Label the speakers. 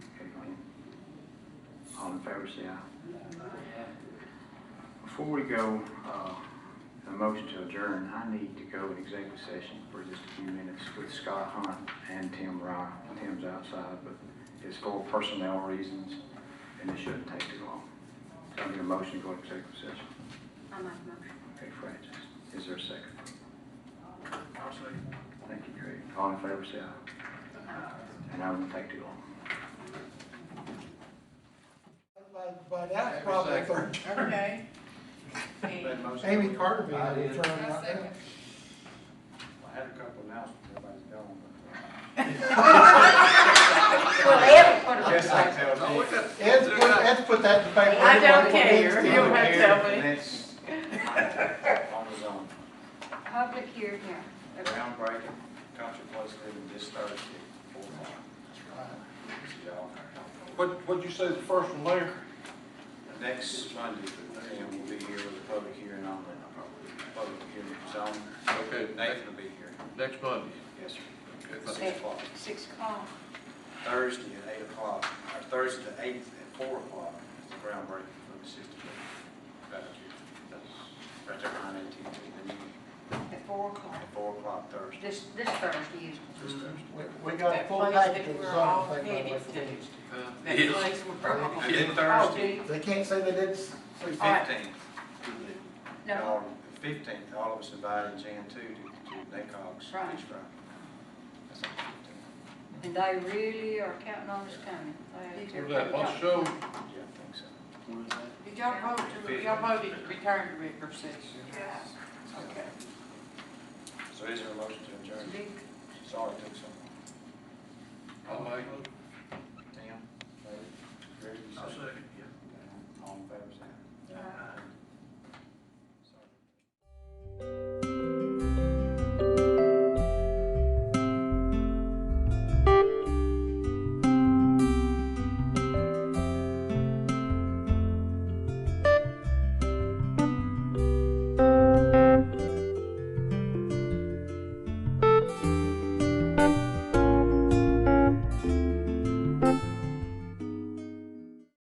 Speaker 1: All in favor, say aye. Before we go, uh, a motion to adjourn, I need to go in executive session for just a few minutes with Scott Hunt and Tim Rye. Tim's outside, but it's for personnel reasons, and it shouldn't take too long. So I need a motion to go in executive session.
Speaker 2: I make a motion.
Speaker 1: Okay, Francis, is there a 2nd Thank you, Craig. All in favor, say aye. And I won't take too long.
Speaker 3: By, by now, it's probably the third.
Speaker 4: Okay. And
Speaker 3: Amy Carter being
Speaker 5: I
Speaker 3: able
Speaker 5: did.
Speaker 3: to turn
Speaker 4: I
Speaker 3: out
Speaker 4: second.
Speaker 3: there.
Speaker 5: I had a couple announcements, everybody's gone. but- Guess I tell
Speaker 6: Oh,
Speaker 5: you.
Speaker 3: Ed's put, Ed's put that in paper.
Speaker 4: I don't care. You don't have to tell me.
Speaker 1: That's
Speaker 5: On his own.
Speaker 2: Public hearing, yeah.
Speaker 5: Groundbreaking, country place living this Thursday, four o'clock. See y'all.
Speaker 6: What, what'd you say the first one there?
Speaker 5: Next Monday, and we'll be here with a public hearing on the, public hearing zone.
Speaker 6: Okay.
Speaker 5: Nathan will be here.
Speaker 6: Next Monday.
Speaker 5: Yes, sir.
Speaker 6: Okay.
Speaker 5: Six o'clock.
Speaker 2: Six o'clock.
Speaker 5: Thursday at eight o'clock, or Thursday the eighth at four o'clock is the groundbreaking for the system. That's, right there behind AT&T, then you,
Speaker 2: At four o'clock.
Speaker 5: at four o'clock Thursday,
Speaker 2: This, this Thursday is.
Speaker 5: this Thursday.
Speaker 3: We, we got a full package of zoning thing. by the way.
Speaker 4: That place where we're all.
Speaker 5: And then
Speaker 2: Oh,
Speaker 5: Thursday,
Speaker 2: dude.
Speaker 3: They can't say they did, s-
Speaker 5: the
Speaker 2: All right.
Speaker 5: fifteenth,
Speaker 2: No,
Speaker 5: all, the fifteenth, all of us invited Jan too, to, to NACOG's this Friday.
Speaker 2: Right.
Speaker 5: That's on the
Speaker 2: and they really are counting on us coming. They-
Speaker 6: Was that last show?
Speaker 5: 15th. Yeah, I think so.
Speaker 4: Did y'all vote to, y'all voted to return to regular session? Okay.
Speaker 5: So is there a motion to
Speaker 2: It's a
Speaker 5: adjourn?
Speaker 2: big
Speaker 5: Sorry, it took so long.
Speaker 6: I'll make it.
Speaker 5: Tim? Larry? Greg, you
Speaker 6: I'll
Speaker 5: second.